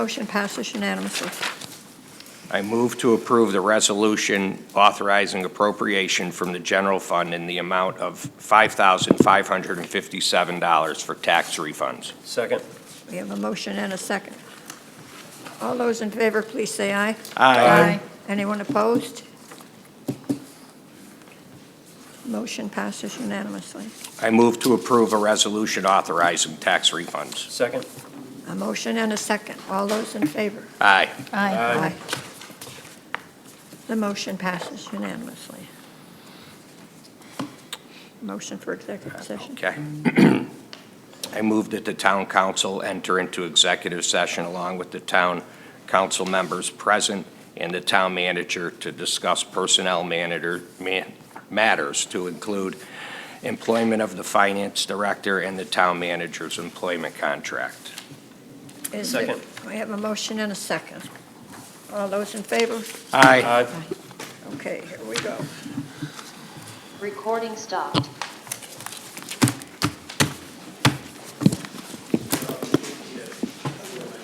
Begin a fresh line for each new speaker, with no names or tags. Motion passes unanimously.
I move to approve the resolution authorizing appropriation from the general fund in the amount of $5,557 for tax refunds.
Second.
We have a motion and a second. All those in favor, please say aye.
Aye.
Anyone opposed? Motion passes unanimously.
I move to approve a resolution authorizing tax refunds.
Second.
A motion and a second. All those in favor?
Aye.
Aye. The motion passes unanimously. Motion for executive session.
Okay. I move that the town council enter into executive session along with the town council members present and the town manager to discuss personnel manager, man, matters to include employment of the finance director and the town manager's employment contract.
Is it-
Second.
We have a motion and a second. All those in favor?
Aye.
Aye.
Okay, here we go.
Recording stopped.